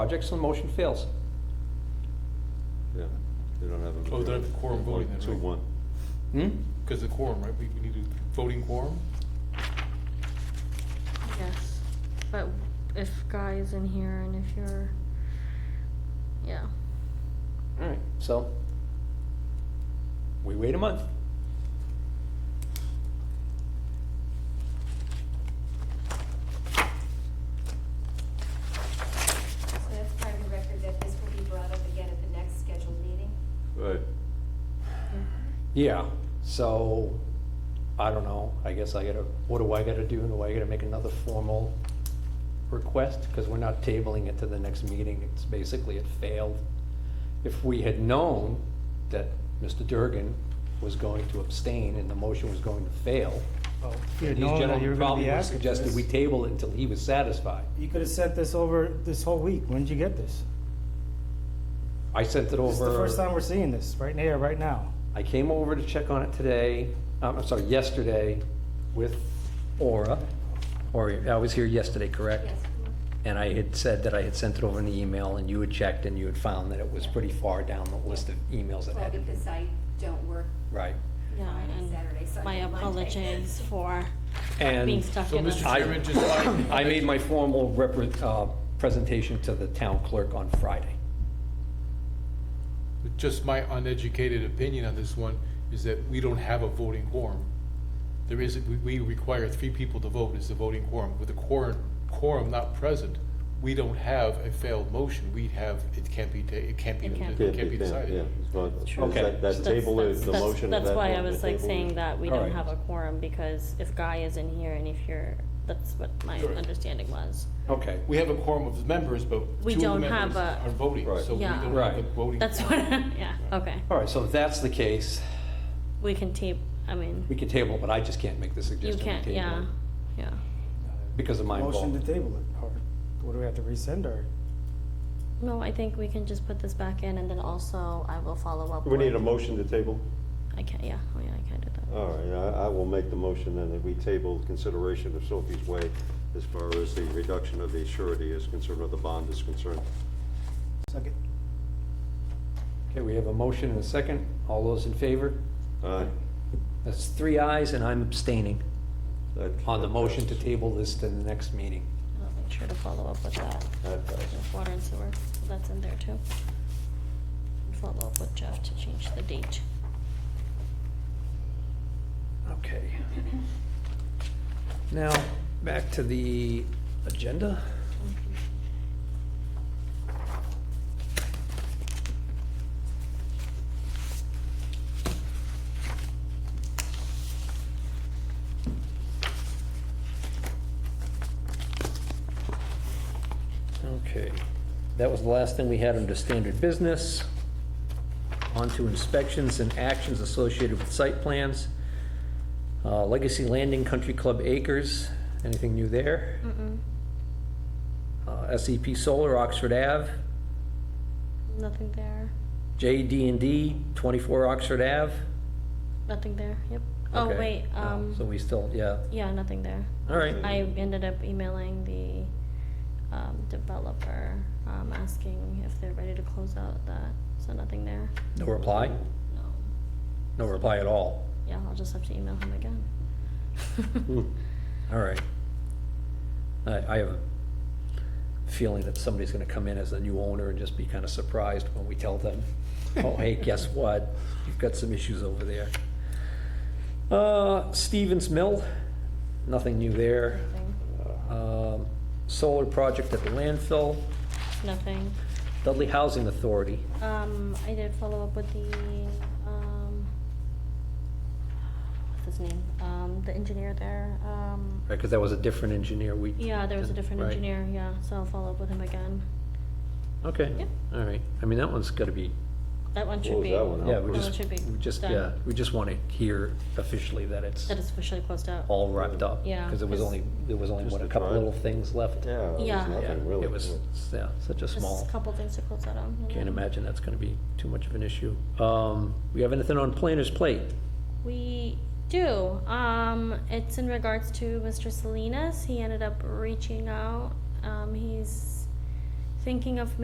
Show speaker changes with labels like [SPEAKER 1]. [SPEAKER 1] projects, so the motion fails.
[SPEAKER 2] Yeah, they don't have a.
[SPEAKER 3] Oh, they don't have quorum voting then,
[SPEAKER 2] Two,
[SPEAKER 3] right?
[SPEAKER 2] one.
[SPEAKER 1] Hmm?
[SPEAKER 3] Because the quorum, right, we, we need a voting quorum?
[SPEAKER 4] Yes, but if Guy is in here and if you're, yeah.
[SPEAKER 1] All right, so we wait a month.
[SPEAKER 5] So that's part of the record that this will be brought up again at the next scheduled meeting.
[SPEAKER 2] Right,
[SPEAKER 1] Yeah, so I don't know. I guess I gotta, what do I gotta do? Do I gotta make another formal request? Because we're not tabling it to the next meeting. It's basically, it failed. If we had known that Mr. Durgan was going to abstain and the motion was going to fail,
[SPEAKER 6] Well, if you
[SPEAKER 1] these
[SPEAKER 6] had known that you
[SPEAKER 1] gentlemen
[SPEAKER 6] were gonna
[SPEAKER 1] probably
[SPEAKER 6] be
[SPEAKER 1] would
[SPEAKER 6] asking for
[SPEAKER 1] suggest that we
[SPEAKER 6] this,
[SPEAKER 1] table it until he was satisfied.
[SPEAKER 6] You could have sent this over this whole week. When did you get this?
[SPEAKER 1] I sent it over.
[SPEAKER 6] This is the first time we're seeing this, right here, right now.
[SPEAKER 1] I came over to check on it today, um, I'm sorry, yesterday with Aura. Or, I was here yesterday, correct?
[SPEAKER 5] Yes.
[SPEAKER 1] And I had said that I had sent it over in the email, and you had checked, and you had found that it was pretty far down the list of emails that
[SPEAKER 5] Well,
[SPEAKER 1] had to be.
[SPEAKER 5] because I don't work
[SPEAKER 1] Right.
[SPEAKER 4] Yeah,
[SPEAKER 5] Friday,
[SPEAKER 4] and
[SPEAKER 5] Saturday, Sunday,
[SPEAKER 4] my
[SPEAKER 5] Monday.
[SPEAKER 4] apologies for
[SPEAKER 1] And
[SPEAKER 4] being stuck
[SPEAKER 3] So,
[SPEAKER 4] in a.
[SPEAKER 3] Mr.
[SPEAKER 1] I-
[SPEAKER 3] Chairman, just like.
[SPEAKER 1] I made my formal repre- uh, presentation to the town clerk on Friday.
[SPEAKER 3] Just my uneducated opinion on this one is that we don't have a voting quorum. There is, we, we require three people to vote is the voting quorum. With the quorum, quorum not present, we don't have a failed motion. We have, it can't be, ta- it can't be,
[SPEAKER 4] It can't.
[SPEAKER 3] it
[SPEAKER 2] can't
[SPEAKER 3] can't be
[SPEAKER 2] yeah.
[SPEAKER 3] decided.
[SPEAKER 2] it's not- is
[SPEAKER 1] Okay.
[SPEAKER 2] that- That
[SPEAKER 4] That's-
[SPEAKER 2] table is the
[SPEAKER 4] that's-
[SPEAKER 2] motion.
[SPEAKER 4] That's
[SPEAKER 2] that
[SPEAKER 4] why
[SPEAKER 2] one,
[SPEAKER 4] I
[SPEAKER 2] the
[SPEAKER 4] was like
[SPEAKER 2] table
[SPEAKER 4] saying
[SPEAKER 2] is-
[SPEAKER 4] that we
[SPEAKER 1] All
[SPEAKER 4] don't
[SPEAKER 1] right.
[SPEAKER 4] have a quorum because if Guy is in here and if you're, that's what my
[SPEAKER 3] Sure.
[SPEAKER 4] understanding was.
[SPEAKER 1] Okay.
[SPEAKER 3] We have a quorum of members, but
[SPEAKER 4] We
[SPEAKER 3] two of the
[SPEAKER 4] don't have
[SPEAKER 3] members
[SPEAKER 4] a-
[SPEAKER 3] are voting,
[SPEAKER 2] Right.
[SPEAKER 3] so we
[SPEAKER 4] Yeah.
[SPEAKER 3] don't have a
[SPEAKER 1] Right.
[SPEAKER 3] voting.
[SPEAKER 4] That's what, yeah, okay.
[SPEAKER 1] All right, so if that's the case,
[SPEAKER 4] We can tape, I mean,
[SPEAKER 1] we can table, it, but I just can't make the
[SPEAKER 4] you
[SPEAKER 1] suggestion. we
[SPEAKER 4] can't,
[SPEAKER 1] table
[SPEAKER 4] yeah,
[SPEAKER 1] it
[SPEAKER 4] yeah.
[SPEAKER 1] Because of my
[SPEAKER 6] Motion to
[SPEAKER 1] involvement.
[SPEAKER 6] table it, or what do we have to rescind, or?
[SPEAKER 4] No, I think we can just put this back in and then also I will follow up
[SPEAKER 2] We
[SPEAKER 4] with.
[SPEAKER 2] need a motion to table?
[SPEAKER 4] I can't, yeah, oh yeah, I can't do that.
[SPEAKER 2] All right, I, I will make the motion then that we table consideration of Sophie's Way as far as the reduction of the surety is concerned, or the bond is concerned.
[SPEAKER 6] Second.
[SPEAKER 1] Okay, we have a motion and a second. All those in favor?
[SPEAKER 2] Aye.
[SPEAKER 1] That's three ayes, and I'm abstaining
[SPEAKER 2] That-
[SPEAKER 1] on the
[SPEAKER 2] that
[SPEAKER 1] motion to
[SPEAKER 2] passes.
[SPEAKER 1] table this to the next meeting.
[SPEAKER 4] I'll make sure to follow up with that.
[SPEAKER 2] That passes.
[SPEAKER 4] With Water and sewer, so that's in there too. And Follow up with Jeff to change the date.
[SPEAKER 1] Okay. Now, back to the agenda. Okay, that was the last thing we had under standard business. On to inspections and actions associated with site plans. Uh, Legacy Landing Country Club Acres, anything new there? Uh, SEP Solar, Oxford Ave,
[SPEAKER 4] Nothing there.
[SPEAKER 1] jd and D, 24 Oxford Ave.
[SPEAKER 4] Nothing there. Yep. Oh
[SPEAKER 1] Okay.
[SPEAKER 4] wait.
[SPEAKER 1] Oh,
[SPEAKER 4] Um.
[SPEAKER 1] So we still, yeah,
[SPEAKER 4] yeah, nothing there.
[SPEAKER 1] all right,
[SPEAKER 2] Okay.
[SPEAKER 4] I ended up emailing the um, developer um, asking if they're ready to close out that. So nothing there.
[SPEAKER 1] no reply?
[SPEAKER 4] No.
[SPEAKER 1] No reply at all,
[SPEAKER 4] Yeah, I'll just have to email him again.
[SPEAKER 1] Hmm. all right. I, I have a feeling that somebody's gonna come in as a new owner and just be kind of surprised when we tell them, oh, hey, guess what? You've got some issues over there. Uh, Stevens Mill, nothing new there.
[SPEAKER 4] Nothing.
[SPEAKER 1] Um, Solar project at the landfill,
[SPEAKER 4] nothing.
[SPEAKER 1] Dudley Housing Authority.
[SPEAKER 4] Um, I did follow up with the, um, what's his name? Um, the engineer there, um,
[SPEAKER 1] Right, because that was a different engineer we.
[SPEAKER 4] yeah, there was a different
[SPEAKER 1] Right.
[SPEAKER 4] engineer, yeah, so I'll follow up with him again.
[SPEAKER 1] Okay,
[SPEAKER 4] Yep.
[SPEAKER 1] all right. I mean, that one's got to be,
[SPEAKER 4] That one
[SPEAKER 2] What
[SPEAKER 4] should
[SPEAKER 2] was
[SPEAKER 4] be.
[SPEAKER 2] that one?
[SPEAKER 1] yeah, we
[SPEAKER 4] Well, it
[SPEAKER 1] just,
[SPEAKER 4] should be
[SPEAKER 1] we just,
[SPEAKER 4] done.
[SPEAKER 1] yeah, we just want to hear officially that it's
[SPEAKER 4] That is officially closed out.
[SPEAKER 1] all wrapped up.
[SPEAKER 4] Yeah,
[SPEAKER 1] Because it was
[SPEAKER 4] 'cause-
[SPEAKER 1] only, there was only,
[SPEAKER 2] Just
[SPEAKER 1] what, a
[SPEAKER 2] the
[SPEAKER 1] couple
[SPEAKER 2] drive.
[SPEAKER 1] little things left?
[SPEAKER 2] Yeah, it was
[SPEAKER 4] Yeah.
[SPEAKER 1] Yeah,
[SPEAKER 2] nothing really.
[SPEAKER 1] it was, yeah, such a
[SPEAKER 4] Just
[SPEAKER 1] small,
[SPEAKER 4] a couple things to close that out. and
[SPEAKER 1] can't
[SPEAKER 4] then
[SPEAKER 1] imagine that's going to be too much of an issue. Um, We have anything on planner's plate?
[SPEAKER 4] We do, um, it's in regards to Mr. Salinas, he ended up reaching out, um, he's thinking of